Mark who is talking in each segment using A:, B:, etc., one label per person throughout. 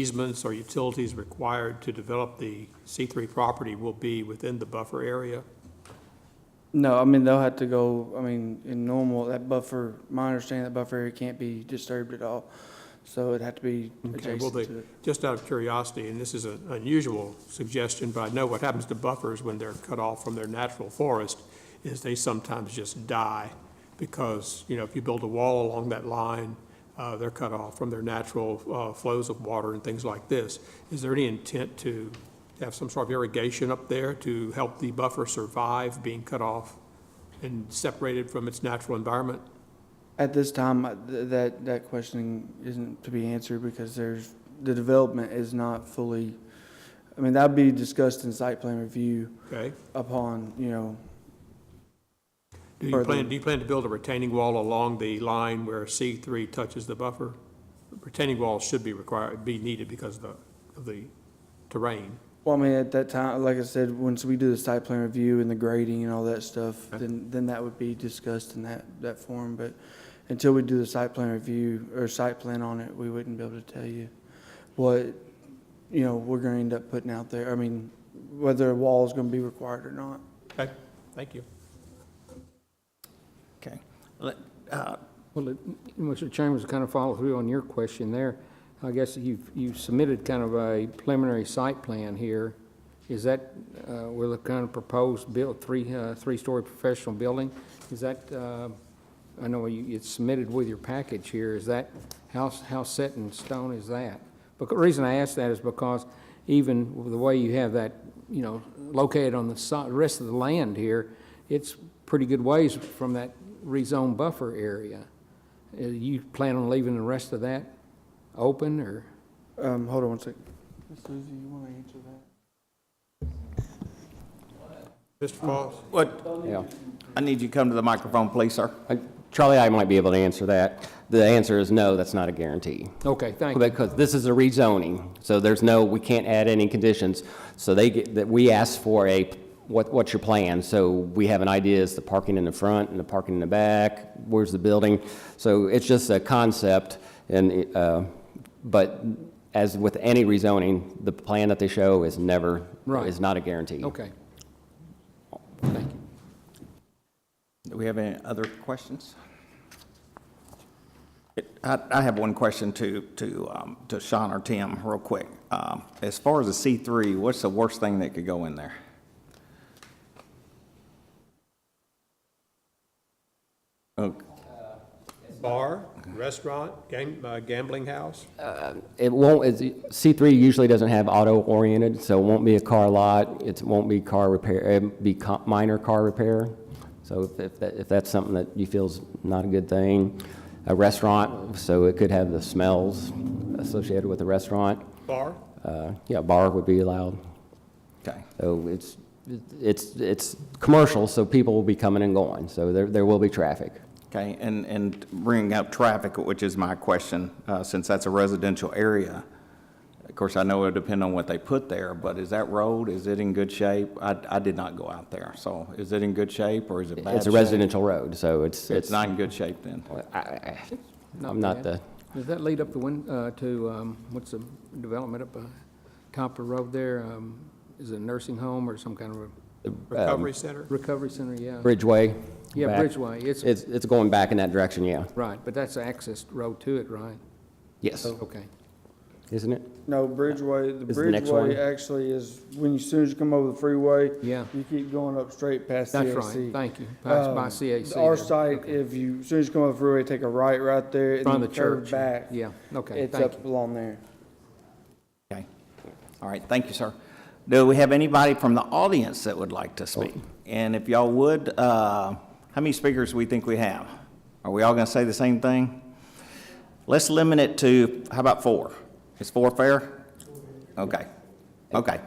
A: easements or utilities required to develop the C3 property will be within the buffer area?
B: No, I mean, they'll have to go, I mean, in normal, that buffer, my understanding, that buffer area can't be disturbed at all. So it'd have to be
A: Okay, well,
B: adjacent
A: they-
B: to it.
A: Just out of curiosity, and this is an unusual suggestion, but I know what happens to buffers when they're cut off from their natural forest is they sometimes just die because, you know, if you build a wall along that line, uh, they're cut off from their natural uh, flows of water and things like this. Is there any intent to have some sort of irrigation up there to help the buffer survive being cut off and separated from its natural environment?
B: At this time, I- th- that, that questioning isn't to be answered because there's, the development is not fully, I mean, that'd be discussed in site plan review
A: Okay?
B: upon, you know,
A: Do you
B: Further.
A: plan, do you plan to build a retaining wall along the line where C three touches the buffer? Retaining walls should be required, be needed because of the, of the terrain.
B: Well, I mean, at that time, like I said, once we do the site plan review and the grading and all that stuff, then, then that would be discussed in that, that form, but until we do the site plan review or site plan on it, we wouldn't be able to tell you what, you know, we're gonna end up putting out there, I mean, whether a wall is gonna be required or not.
A: Okay, thank you.
C: Okay. Let- uh,
D: Well, it- Mr. Chambers, kind of follow through on your question there. I guess you've, you've submitted kind of a preliminary site plan here. Is that, uh, with a kind of proposed build, three, uh, three-story professional building? Is that, uh, I know you, it's submitted with your package here. Is that, how, how set in stone is that? But the reason I ask that is because even with the way you have that, you know, located on the si- rest of the land here, it's pretty good ways from that rezone buffer area. Uh, You plan on leaving the rest of that open, or?
B: Um, hold on one second. Ms. Susie, you wanna answer that?
A: Mr. Foss?
C: What,
E: Yeah.
C: I need you to come to the microphone, please, sir.
E: I- Charlie, I might be able to answer that. The answer is no, that's not a guarantee.
D: Okay, thank you.
E: Because this is a rezoning, so there's no, we can't add any conditions. So they get, that we ask for a, what, what's your plan? So we have an idea, is the parking in the front and the parking in the back? Where's the building? So it's just a concept and, uh, but as with any rezoning, the plan that they show is never,
D: Right.
E: is not a guarantee.
D: Okay.
C: Do we have any other questions? It- I, I have one question to, to, um, to Sean or Tim, real quick. Um, As far as the C3, what's the worst thing that could go in there? Okay.
A: Bar, restaurant, gam- uh, gambling house?
E: It won't, it's, C3 usually doesn't have auto-oriented, so it won't be a car lot, it won't be car repair, it'd be co- minor car repair. So if- if, that- if that's something that you feel is not a good thing, a restaurant, so it could have the smells associated with the restaurant.
A: Bar?
E: Uh, Yeah, bar would be allowed.
C: Okay,
E: So it's, it's, it's commercial, so people will be coming and going, so there, there will be traffic.
C: okay, and, and bringing up traffic, which is my question, uh, since that's a residential area. Of course, I know it'll depend on what they put there, but is that road, is it in good shape? I, I did not go out there, so is it in good shape or is it bad
E: It's a
C: shape?
E: residential road, so it's,
C: It's
E: it's,
C: not in good shape then.
E: I- I- I'm not the,
D: bad. Does that lead up the win, uh, to, um, what's the development up, uh, top of the road there? Um, is it a nursing home or some kind of a
A: Recovery center?
D: recovery center? Yeah.
E: Bridgeway.
D: Yeah,
E: back.
D: Bridgeway. It's,
E: It's, it's going back in that direction, yeah.
D: right, but that's the access road to it, right?
E: Yes,
D: Okay.
E: isn't it?
B: No, Bridgeway, the
E: Is the next one?
B: Bridgeway actually is, when you, soon as you come over the freeway,
D: Yeah.
B: you keep going up straight past
D: That's
B: CAC.
D: right. Thank you. By by
B: Um,
D: CAC.
B: Our
D: there.
B: site, if you, as soon as you come up the freeway, take a right right there and
D: Front
B: then
D: of
B: you
D: the
B: curve
D: church.
B: back.
D: Yeah, okay,
B: It's
D: thank you.
B: up along there.
C: Okay. All right, thank you, sir. Do we have anybody from the audience that would like to speak? And if y'all would, uh, how many speakers we think we have? Are we all going to say the same thing? Let's limit it to, how about four? Is four fair? Okay, okay.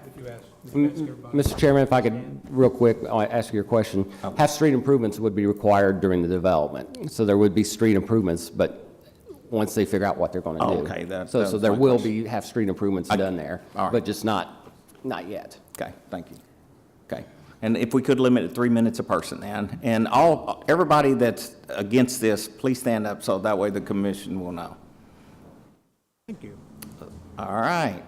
E: Mr. Chairman, if I could, real quick, I'll ask you a question.
C: Oh.
E: Half-street improvements would be required during the development, so there would be street improvements, but once they figure out what they're going to do.
C: Okay, that-
E: So,
C: that
E: so
C: was
E: there
C: my
E: will
C: question.
E: be half-street improvements done there,
C: all right.
E: but just not, not yet.
C: Okay, thank you. Okay. And if we could limit it to three minutes a person, then. And all, everybody that's against this, please stand up so that way the commission will know. Thank you. All right.